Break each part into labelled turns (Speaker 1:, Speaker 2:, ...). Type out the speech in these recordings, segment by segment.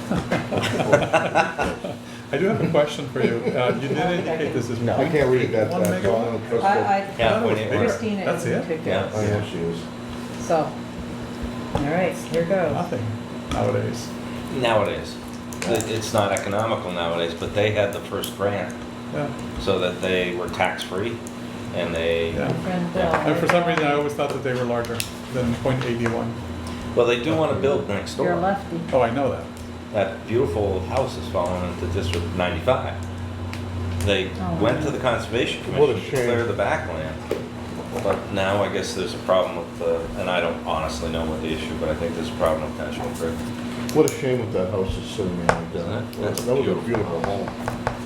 Speaker 1: I do have a question for you. Uh, You did indicate this is.
Speaker 2: No.
Speaker 3: I can't read that, uh,
Speaker 1: One
Speaker 3: that
Speaker 1: megawatt?
Speaker 3: column. That's
Speaker 4: I,
Speaker 1: The
Speaker 2: Yeah,
Speaker 1: other
Speaker 4: I,
Speaker 1: one's
Speaker 2: when it
Speaker 1: bigger.
Speaker 4: Christina
Speaker 1: That's
Speaker 4: even
Speaker 1: it?
Speaker 4: picked
Speaker 2: Yeah.
Speaker 4: up,
Speaker 3: good. I know she is.
Speaker 4: so, all right, here goes.
Speaker 1: Nothing nowadays.
Speaker 2: Nowadays, It- it's not economical nowadays, but they had the first grant
Speaker 1: Yeah.
Speaker 2: so that they were tax-free and they,
Speaker 1: Yeah.
Speaker 4: Friend Bill.
Speaker 2: Yeah.
Speaker 1: And for some reason, I always thought that they were larger than .81.
Speaker 2: well, they do want to build next
Speaker 4: You're a
Speaker 2: door.
Speaker 4: lefty.
Speaker 1: Oh, I know that.
Speaker 2: That beautiful house is falling into District 95. They
Speaker 4: Oh.
Speaker 2: went to the Conservation
Speaker 3: What a
Speaker 2: Commission to
Speaker 3: shame.
Speaker 2: clear the backland. But now I guess there's a problem with the, and I don't honestly know what the issue, but I think there's a problem with National Grid.
Speaker 3: What a shame that that house is sitting there like that.
Speaker 2: Isn't it?
Speaker 3: That
Speaker 2: That's
Speaker 3: was a
Speaker 2: beautiful.
Speaker 3: beautiful home.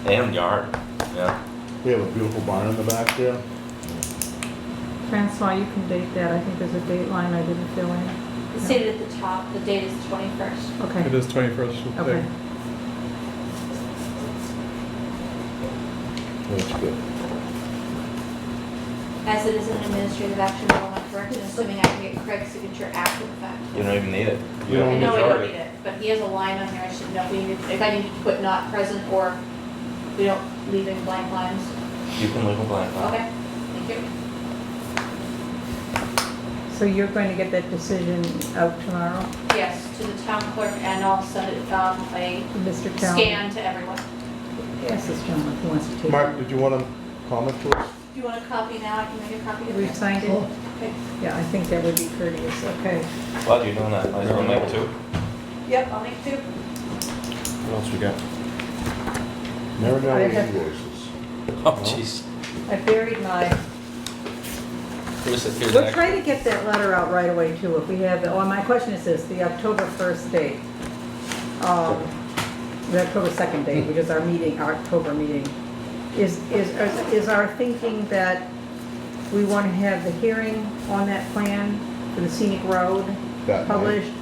Speaker 2: And yard, yeah.
Speaker 3: We have a beautiful barn in the back there.
Speaker 4: Francois, you can date that, I think there's a date line I didn't fill in.
Speaker 5: It's stated at the top, the date is twenty-first.
Speaker 1: It
Speaker 4: Okay,
Speaker 1: is 21st. of
Speaker 4: okay.
Speaker 1: May.
Speaker 3: That's good.
Speaker 5: As it is an administrative action, I'm not correct, and assuming I can get Craig's signature after the fact.
Speaker 2: You don't even need it.
Speaker 3: You don't
Speaker 5: I know I don't
Speaker 2: Majority.
Speaker 5: need it, but he has a line on here, I should know, we need, if I need to put not present, or we don't leave any blank lines.
Speaker 2: You can live in Black Rock.
Speaker 5: Okay, thank you.
Speaker 4: So you're going to get that decision out tomorrow,
Speaker 5: Yes, to the town clerk, and I'll send it, um, a
Speaker 4: Mr. Town?
Speaker 5: scan to everyone. Do
Speaker 4: Yes, this gentleman who wants to take.
Speaker 3: Mark, did you want to comment to us?
Speaker 5: you want a copy now? I can make a copy of it.
Speaker 4: We've signed it?
Speaker 3: Sure.
Speaker 5: Okay.
Speaker 4: Yeah, I think that would be courteous, okay.
Speaker 2: While you're doing that, might as well make two.
Speaker 5: Yep, I'll make two.
Speaker 3: What else we got? Marinelli
Speaker 4: I have-
Speaker 3: invoices.
Speaker 2: Oh, jeez.
Speaker 4: I buried mine.
Speaker 2: Here's, here's
Speaker 4: We'll
Speaker 2: that.
Speaker 4: try to get that letter out right away too, if we have, oh, my question is this, the October 1st date. um, The October 2nd date, which is our meeting, our October meeting. Is, is, is our thinking that we want to have the hearing on that plan for the scenic road
Speaker 3: That night.
Speaker 4: published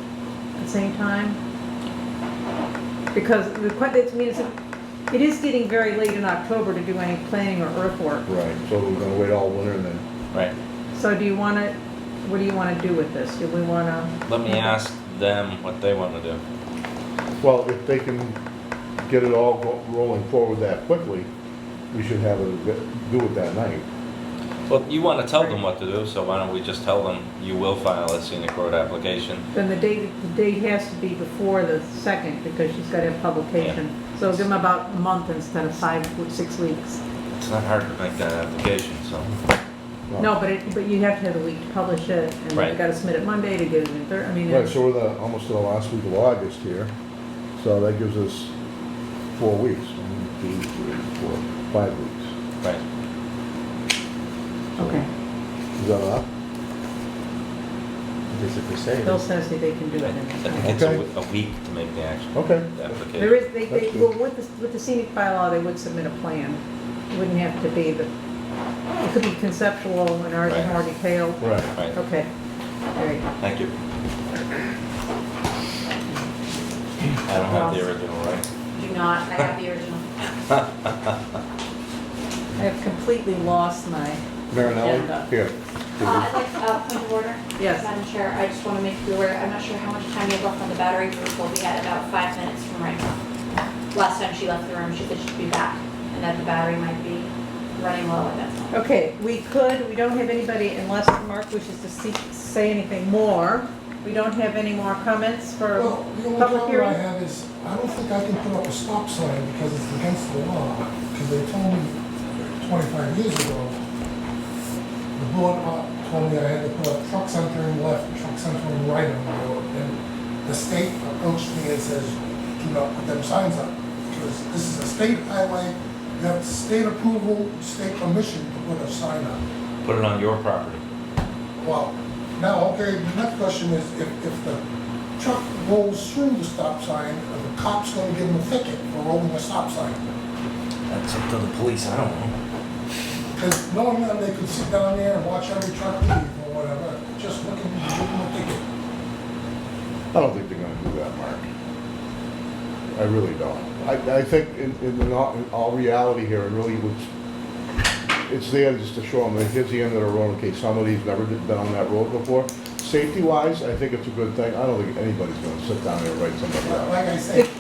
Speaker 4: at the same time? Because the, que- it's, I mean, it's- it is getting very late in October to do any planning or earthwork.
Speaker 3: Right, so we're gonna wait all winter and then,
Speaker 2: Right.
Speaker 4: So do you want to, what do you want to do with this? Do we want to?
Speaker 2: Let me ask them what they want to do.
Speaker 3: well, if they can get it all go- rolling forward that quickly, we should have it, do it that night.
Speaker 2: Well, you want to tell them what to do, so why don't we just tell them you will file a scenic road application?
Speaker 4: Then the date, the date has to be before the second because she's got to have publication. So give them about a month instead of five, six weeks.
Speaker 2: It's not hard to make that application, so.
Speaker 4: No, but it, but you have to have a week to publish it and
Speaker 2: Right.
Speaker 4: you've got to submit it Monday to get it in Thursday. I mean,
Speaker 3: Right,
Speaker 4: it's-
Speaker 3: so we're the, almost to the last week of August here, so that gives us four weeks, one, two, three, four, five weeks.
Speaker 2: Right.
Speaker 4: okay.
Speaker 3: Is that enough?
Speaker 6: Basically say.
Speaker 4: Bill says that they can do
Speaker 2: I
Speaker 4: it
Speaker 2: I
Speaker 4: in
Speaker 2: think
Speaker 4: this.
Speaker 2: it's a
Speaker 3: Okay. Oh.
Speaker 2: w- a week to make the action,
Speaker 3: Okay.
Speaker 2: the
Speaker 4: There
Speaker 2: application.
Speaker 4: is, they, they, well, with the, with the scenic bylaw, they would submit a plan. It Wouldn't have to be the, it could be conceptual and ours is
Speaker 2: Right.
Speaker 4: more detailed.
Speaker 3: Right.
Speaker 2: Right,
Speaker 4: Okay, all right.
Speaker 2: thank you. I don't have the original, right?
Speaker 5: Do not, I have the original.
Speaker 4: I have completely lost my,
Speaker 3: Marinelli, here.
Speaker 5: Uh, I'd like, uh, point of order.
Speaker 4: Yes.
Speaker 5: Madam Chair, I just want to make you aware, I'm not sure how much time you have left on the battery group, but we had about five minutes from right now. Last time she left the room, she said she'd be back, and that the battery might be running low at that time.
Speaker 4: okay, we could, we don't have anybody, unless Mark wishes to see, say anything more, we don't have any more comments for
Speaker 7: Well, the only
Speaker 4: public
Speaker 7: problem I
Speaker 4: hearing?
Speaker 7: have is, I don't think I can put up a stop sign because it's against the law, because they told me twenty-five years ago, the board uh, told me I had to put up trucks entering left, trucks entering right on the road, and the state approached me and says, do not put them signs up, because this is a state highway, you have state approval, state permission to put a sign up.
Speaker 2: Put it on your property.
Speaker 7: Well, now, okay, the next question is, if, if the truck rolls through the stop sign, are the cop's gonna give him a ticket for rolling a stop sign?
Speaker 2: That's up to the police, I don't know.
Speaker 7: Because knowing that they could sit down there and watch every truck leave or whatever, just looking, give him a ticket.
Speaker 3: I don't think they're gonna do that, Mark. I really don't. I, I think in, in the not- in all reality here, it really was, it's there just to show them, that here's the end of the road, in case somebody's never been on that road before. Safety wise, I think it's a good thing. I don't think anybody's gonna sit down there and write somebody
Speaker 7: But
Speaker 3: out.
Speaker 7: Like I
Speaker 4: Did
Speaker 7: said,